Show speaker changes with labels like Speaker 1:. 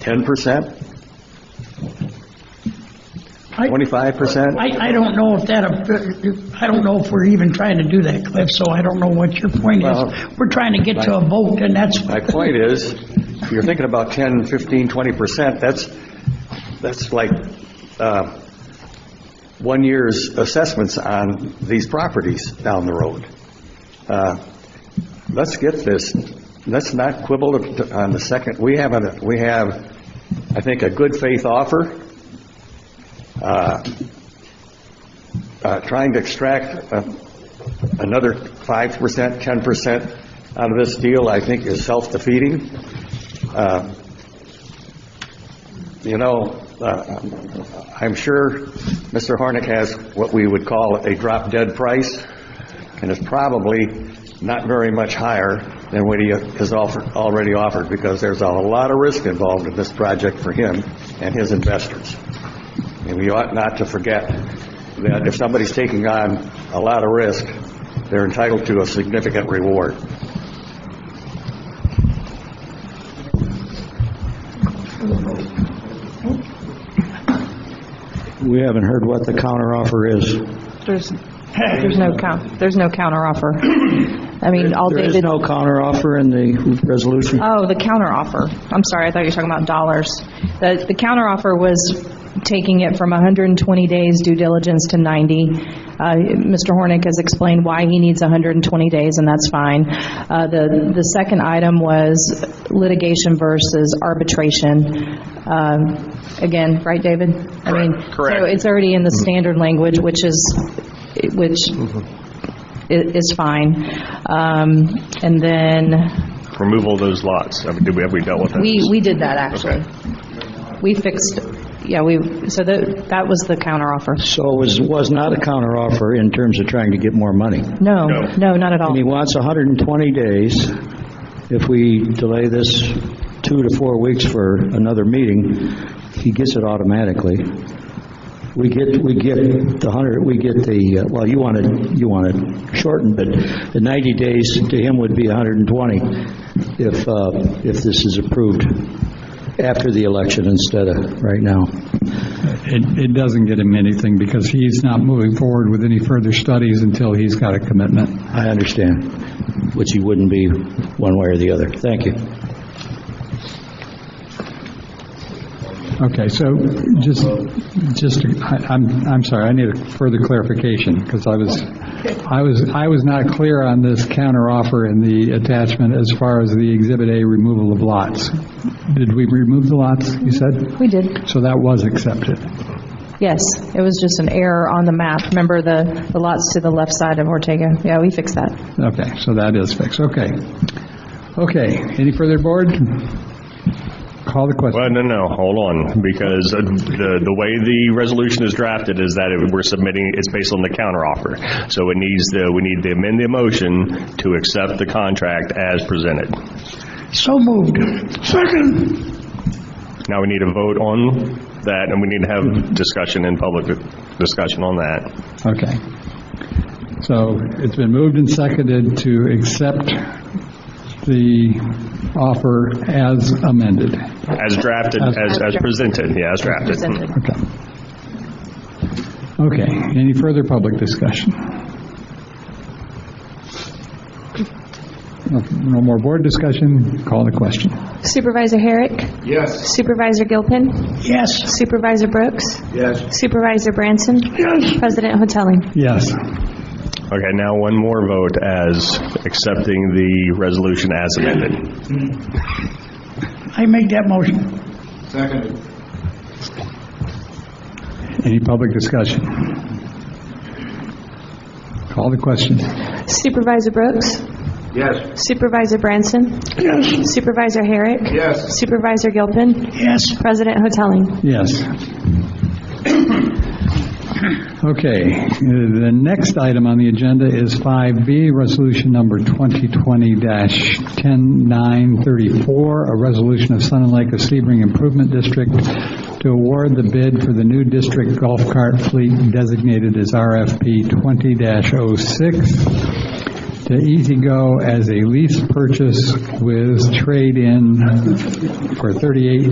Speaker 1: Ten percent?
Speaker 2: I-
Speaker 1: Twenty-five percent?
Speaker 2: I, I don't know if that, I don't know if we're even trying to do that, Cliff, so I don't know what your point
Speaker 1: Well-
Speaker 2: is. We're trying to get to a vote, and that's,
Speaker 1: My point is, if you're thinking about 10, 15, 20%, that's, that's like uh, one year's assessments on these properties down the road. Uh, Let's get this, let's not quibble on the second, we have, a we have, I think, a good faith offer, uh, uh, trying to extract uh, another 5%, 10% out of this deal, I think is self-defeating. Uh, You know, uh, I'm sure Mr. Hornick has what we would call a drop-dead price, and it's probably not very much higher than what he has offered, already offered, because there's a lot of risk involved in this project for him and his investors. And we ought not to forget that if somebody's taking on a lot of risk, they're entitled to a significant reward.
Speaker 3: We haven't heard what the counteroffer is.
Speaker 4: There's, there's no count, there's no counteroffer. I mean, all
Speaker 3: There is
Speaker 4: David,
Speaker 3: no counteroffer in the resolution.
Speaker 4: oh, the counteroffer. I'm sorry, I thought you were talking about dollars. The, the counteroffer was taking it from 120 days due diligence to 90. Uh, Mr. Hornick has explained why he needs 120 days, and that's fine. Uh, The, the second item was litigation versus arbitration. Um, Again, right, David? I mean, so it's already in the standard language, which is, which i- is fine. Um, And then,
Speaker 5: removal of those lots? I mean, did we, have we dealt with that?
Speaker 4: we, we did that, actually. We fixed, yeah, we, so that, that was the counteroffer.
Speaker 3: So it was, was not a counteroffer in terms of trying to get more money.
Speaker 4: No,
Speaker 5: No.
Speaker 4: no, not at all.
Speaker 3: And he wants 120 days. If we delay this two to four weeks for another meeting, he gets it automatically. We get, we get the 100, we get the, uh, well, you want it, you want it shortened, but the 90 days to him would be 120 if, uh, if this is approved after the election instead of right now.
Speaker 6: It, it doesn't get him anything because he's not moving forward with any further studies until he's got a commitment.
Speaker 3: I understand, which he wouldn't be one way or the other. Thank you.
Speaker 6: Okay, so just, just, I- I'm, I'm sorry, I need a further clarification because I was, I was, I was not clear on this counteroffer in the attachment as far as the Exhibit A removal of lots. Did we remove the lots, you said?
Speaker 4: We did,
Speaker 6: So that was accepted.
Speaker 4: yes. It was just an error on the map. Remember the, the lots to the left side of Ortega? Yeah, we fixed that.
Speaker 6: Okay, so that is fixed, okay. Okay, any further, board? Call the question.
Speaker 5: Well, no, no, hold on, because uh, the, the way the resolution is drafted is that it- we're submitting, it's based on the counteroffer. So it needs, the we need to amend the motion to accept the contract as presented.
Speaker 2: so moved. Second.
Speaker 5: Now we need a vote on that, and we need to have discussion in public, discussion on that.
Speaker 6: Okay. So it's been moved and seconded to accept the offer as amended.
Speaker 5: As drafted, as, as presented, yeah, as drafted.
Speaker 4: Presented.
Speaker 6: Okay. Okay, any further public discussion? No- No more board discussion, call the question.
Speaker 7: Supervisor Herrick? Yes. Supervisor Gilpin?
Speaker 2: Yes,
Speaker 7: Supervisor Brooks? Yes. Supervisor Branson? Yes. President Hoteling?
Speaker 6: Yes.
Speaker 5: Okay, now one more vote as accepting the resolution as amended.
Speaker 2: I make that motion.
Speaker 6: Any public discussion? Call the question.
Speaker 7: Supervisor Brooks? Yes. Supervisor Branson? Yes. Supervisor Herrick? Yes. Supervisor Gilpin?
Speaker 2: Yes.
Speaker 7: President Hoteling?
Speaker 6: Yes. Okay, the next item on the agenda is 5B, Resolution Number 2020-10934, a resolution of Sun and Lake of Sebring Improvement District to award the bid for the new district golf cart fleet designated as RFP 20-06 to E Easy Go as a lease purchase with trade-in for 38